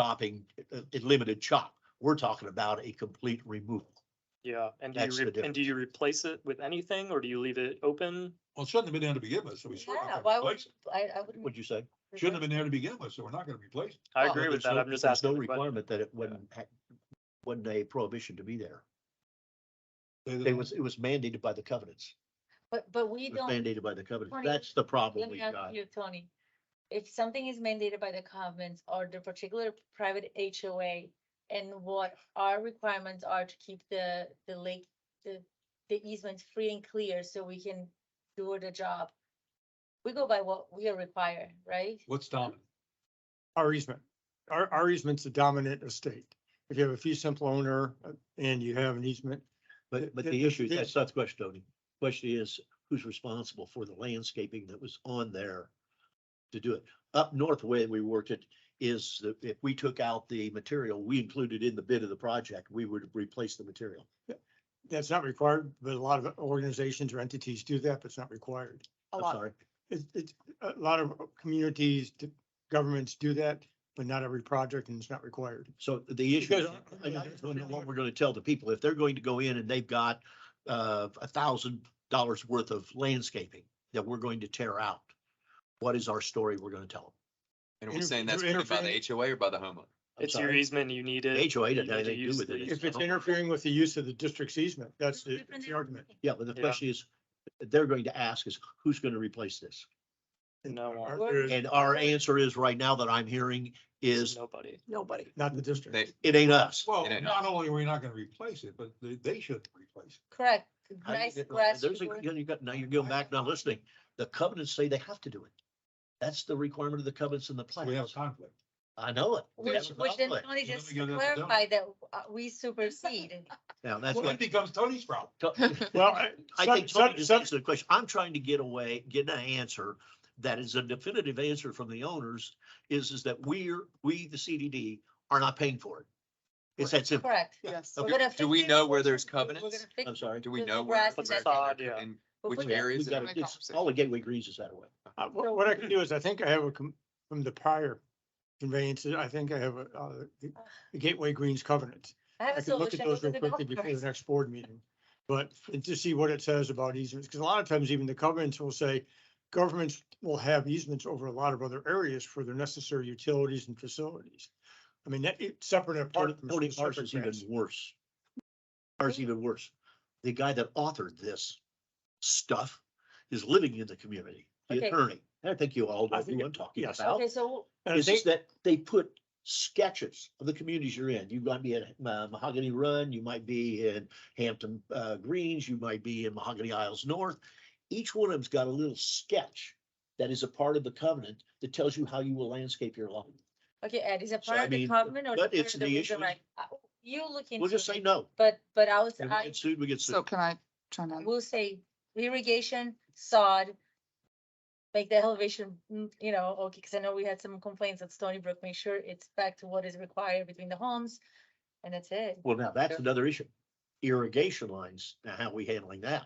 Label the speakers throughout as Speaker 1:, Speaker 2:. Speaker 1: chopping, uh, uh, limited chop. We're talking about a complete removal.
Speaker 2: Yeah, and do
Speaker 1: That's
Speaker 2: you,
Speaker 1: the
Speaker 2: re- and do you replace it with anything or do you leave it open?
Speaker 3: Well, it shouldn't have been there to begin with, so we certainly
Speaker 4: Yeah,
Speaker 3: not
Speaker 4: why
Speaker 3: gonna
Speaker 4: would,
Speaker 3: replace it.
Speaker 4: I, I wouldn't.
Speaker 1: What'd you say?
Speaker 3: Shouldn't have been there to begin with, so we're not gonna replace it.
Speaker 2: I
Speaker 4: Well,
Speaker 2: agree
Speaker 1: But Oh,
Speaker 2: with
Speaker 1: there's
Speaker 2: that.
Speaker 1: no-
Speaker 2: I'm just
Speaker 1: there's
Speaker 2: asking.
Speaker 1: No
Speaker 2: the question.
Speaker 1: requirement that it wasn't, ha- wasn't a prohibition to be there.
Speaker 3: Say that
Speaker 1: It
Speaker 3: I'm-
Speaker 1: was, it was mandated by the covenants.
Speaker 4: But, but we
Speaker 1: It was
Speaker 4: don't,
Speaker 1: mandated by the covenants.
Speaker 4: Tony,
Speaker 1: That's the problem
Speaker 4: let
Speaker 1: we've
Speaker 4: me ask
Speaker 1: got.
Speaker 4: you, Tony. If something is mandated by the covenants or the particular private HOA and what our requirements are to keep the, the lake, the, the easements free and clear so we can do the job. We go by what we are required, right?
Speaker 3: What's dominant?
Speaker 5: our easement. Our, our easement's the dominant estate. If you have a fee simple owner uh, and you have an easement,
Speaker 1: But, but
Speaker 5: the-
Speaker 1: the
Speaker 5: the-
Speaker 1: issue,
Speaker 5: the-
Speaker 1: that's not the question, Tony. Question is, who's responsible for the landscaping that was on there to do it? Up north, the way we worked it is that if we took out the material we included in the bid of the project, we would replace the material.
Speaker 5: that's not required, but a lot of organizations or entities do that, but it's not required.
Speaker 4: A
Speaker 1: I'm
Speaker 4: lot.
Speaker 1: sorry.
Speaker 5: It's, it's, a lot of communities, governments do that, but not every project and it's not required.
Speaker 1: So the issue, is-
Speaker 5: Because-
Speaker 1: I I just don't know what we're gonna tell the people, if they're going to go in and they've got uh a thousand dollars worth of landscaping that we're going to tear out, what is our story we're gonna tell
Speaker 6: And are we
Speaker 5: Inter-
Speaker 6: saying that's
Speaker 5: you're
Speaker 6: paid by
Speaker 5: interfering-
Speaker 6: the HOA or by the homeowner?
Speaker 1: them? I'm
Speaker 2: It's your
Speaker 1: sorry.
Speaker 2: easement, you need it.
Speaker 1: HOA
Speaker 2: you
Speaker 1: didn't have
Speaker 2: need to
Speaker 1: anything to do
Speaker 2: use
Speaker 1: with
Speaker 2: the
Speaker 1: it.
Speaker 2: eas-
Speaker 5: If it's interfering with the use of the district's easement, that's the
Speaker 4: Different
Speaker 5: that's the
Speaker 4: than-
Speaker 5: argument.
Speaker 1: Yeah, but the
Speaker 2: Yeah.
Speaker 1: question is, they're going to ask is, who's gonna replace this?
Speaker 5: And
Speaker 2: No one.
Speaker 5: our-
Speaker 4: We're-
Speaker 5: there's
Speaker 1: And our answer is right now that I'm hearing is,
Speaker 2: Nobody.
Speaker 4: Nobody.
Speaker 5: Not the district.
Speaker 6: They,
Speaker 1: it ain't us.
Speaker 3: Well,
Speaker 6: It ain't
Speaker 3: not only are we not gonna replace it, but they, they shouldn't replace it.
Speaker 4: Correct.
Speaker 1: How do you
Speaker 4: Nice
Speaker 1: get-
Speaker 4: question.
Speaker 1: There's a, you know, you got, now you're going back, now listening, the covenants say they have to do it. That's the requirement of the covenants and the
Speaker 3: So We have
Speaker 1: plans.
Speaker 3: conflict.
Speaker 1: I know it. We have
Speaker 4: Which,
Speaker 1: a
Speaker 4: which then
Speaker 1: conflict.
Speaker 4: Tony
Speaker 3: Let me
Speaker 4: just
Speaker 3: go get the donut.
Speaker 4: clarified that uh, we supersede.
Speaker 1: Now, that's
Speaker 3: Well,
Speaker 1: what.
Speaker 3: it becomes Tony's problem.
Speaker 1: To-
Speaker 5: Well, I-
Speaker 1: I
Speaker 5: some-
Speaker 1: think Tony
Speaker 5: some-
Speaker 1: just
Speaker 5: some-
Speaker 1: answered the question. I'm trying to get away, get an answer that is a definitive answer from the owners is, is that we're, we, the CDD, are not paying for it. It's that simple.
Speaker 4: Correct.
Speaker 3: Yes.
Speaker 4: We're
Speaker 6: do-
Speaker 4: gonna
Speaker 6: do
Speaker 4: fix
Speaker 6: we
Speaker 4: it.
Speaker 6: know where there's
Speaker 4: We're gonna
Speaker 6: covenants?
Speaker 4: fix
Speaker 1: I'm
Speaker 4: it.
Speaker 1: sorry.
Speaker 6: Do we
Speaker 4: The
Speaker 6: know
Speaker 4: grass
Speaker 6: where?
Speaker 4: is
Speaker 6: where
Speaker 4: that-
Speaker 2: Facade, yeah.
Speaker 6: And
Speaker 4: We'll
Speaker 6: which
Speaker 4: put that-
Speaker 6: areas?
Speaker 1: We've
Speaker 6: it-
Speaker 1: got,
Speaker 7: my
Speaker 1: it's, all the Gateway Greens is that way.
Speaker 5: Uh, wh- What I can do is, I think I have a, com- from the prior conveyances, I think I have a, uh, the- the Gateway Greens covenant.
Speaker 4: I have
Speaker 5: I
Speaker 4: a
Speaker 5: can look at
Speaker 4: solution.
Speaker 5: those
Speaker 4: Look
Speaker 5: real
Speaker 4: at the
Speaker 5: quickly
Speaker 4: golf
Speaker 5: before the
Speaker 4: course.
Speaker 5: next board meeting. But and to see what it says about easements, because a lot of times even the covenants will say governments will have easements over a lot of other areas for their necessary utilities and facilities. I mean, that, it's separate and apart. from
Speaker 1: Tony,
Speaker 5: specific
Speaker 1: ours is even
Speaker 5: grants.
Speaker 1: worse. Ours is even worse. The guy that authored this stuff is living in the community, the
Speaker 4: Okay.
Speaker 1: attorney. I think you all know
Speaker 5: I think
Speaker 1: who
Speaker 5: it-
Speaker 1: I'm talking
Speaker 5: yes.
Speaker 1: about.
Speaker 4: Okay, so
Speaker 5: And I
Speaker 1: is
Speaker 5: think-
Speaker 1: is that they put sketches of the communities you're in. You might be at uh, Mahogany Run, you might be in Hampton uh, Greens, you might be in Mahogany Isles North. Each one of them's got a little sketch that is a part of the covenant that tells you how you will landscape your lawn.
Speaker 4: Okay, Ed, is it
Speaker 1: So, I
Speaker 4: part of the
Speaker 1: mean,
Speaker 4: covenant or?
Speaker 1: but
Speaker 4: part
Speaker 1: it's
Speaker 4: of
Speaker 1: the
Speaker 4: legal
Speaker 1: issue is-
Speaker 4: right? Uh, You look into.
Speaker 1: We'll just
Speaker 4: it,
Speaker 1: say no.
Speaker 4: But, but I was,
Speaker 1: If we
Speaker 4: I
Speaker 1: get sued, we get
Speaker 7: So
Speaker 1: sued.
Speaker 7: can I try to?
Speaker 4: will say irrigation, sod. Make the elevation, mm, you know, okay, because I know we had some complaints at Stony Brook, make sure it's back to what is required between the homes. And that's it.
Speaker 1: Well, now that's another issue. Irrigation lines, now how are we handling that?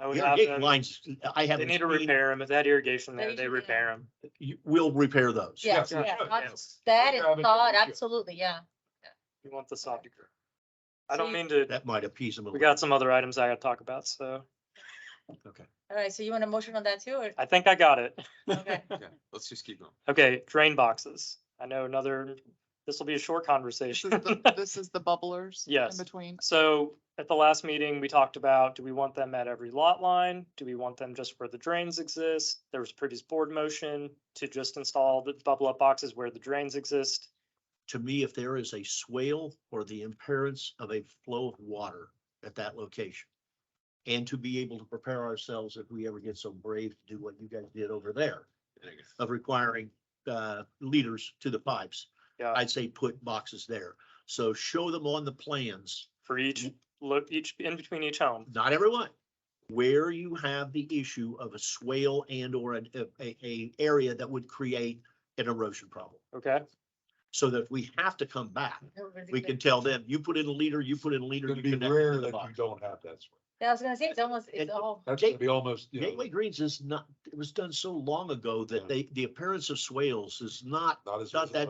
Speaker 2: I would have
Speaker 1: Irrigation
Speaker 2: them,
Speaker 1: lines, I
Speaker 2: they
Speaker 1: haven't
Speaker 2: need to
Speaker 1: seen,
Speaker 2: repair them. If that irrigation there,
Speaker 4: They
Speaker 2: they
Speaker 4: should,
Speaker 2: repair them.
Speaker 1: you- we'll repair those.
Speaker 4: Yes,
Speaker 3: yeah,
Speaker 4: yeah,
Speaker 3: sure,
Speaker 4: not-
Speaker 2: yes.
Speaker 4: that is
Speaker 3: Yeah, I mean,
Speaker 4: sod,
Speaker 3: sure.
Speaker 4: absolutely, yeah.
Speaker 2: You want the sod to grow. I
Speaker 4: So
Speaker 2: don't
Speaker 4: you-
Speaker 2: mean to,
Speaker 1: That might appease them a
Speaker 2: we
Speaker 1: little.
Speaker 2: got some other items I gotta talk about, so
Speaker 4: All right, so you want a motion on that too, or?
Speaker 2: I think I got it.
Speaker 4: Okay.
Speaker 6: Yeah, let's just keep going.
Speaker 2: Okay, drain boxes. I know another, this will be a short
Speaker 7: This
Speaker 2: conversation.
Speaker 7: is the- this is the bubblers.
Speaker 2: Yes.
Speaker 7: In between.
Speaker 2: So at the last meeting, we talked about, do we want them at every lot line? Do we want them just where the drains exist? There was a previous board motion to just install the bubble up boxes where the drains exist.
Speaker 1: to me, if there is a swale or the appearance of a flow of water at that location. And to be able to prepare ourselves if we ever get so brave to do what you guys did over there of requiring uh leaders to the pipes.
Speaker 2: Yeah.
Speaker 1: I'd say put boxes there. So show them on the plans,
Speaker 2: For each, look, each, in between each home.
Speaker 1: not everyone. Where you have the issue of a swale and or an- a a a area that would create an erosion problem.
Speaker 2: Okay,
Speaker 1: So that if we have to come back, we can tell them, you put in a leader, you put in a leader.
Speaker 3: It's
Speaker 1: you
Speaker 3: gonna be
Speaker 1: connect
Speaker 3: rare
Speaker 1: to the
Speaker 3: that you
Speaker 1: box.
Speaker 3: don't have that. sort.
Speaker 4: Yeah, I was gonna say, it's almost,
Speaker 1: And-
Speaker 4: it's all,
Speaker 3: That's
Speaker 1: Gate-
Speaker 3: gonna be almost, you know,
Speaker 1: Gateway Greens is not, it was done so long ago
Speaker 3: Yeah.
Speaker 1: that they, the appearance of swales is not
Speaker 3: not as.
Speaker 1: not that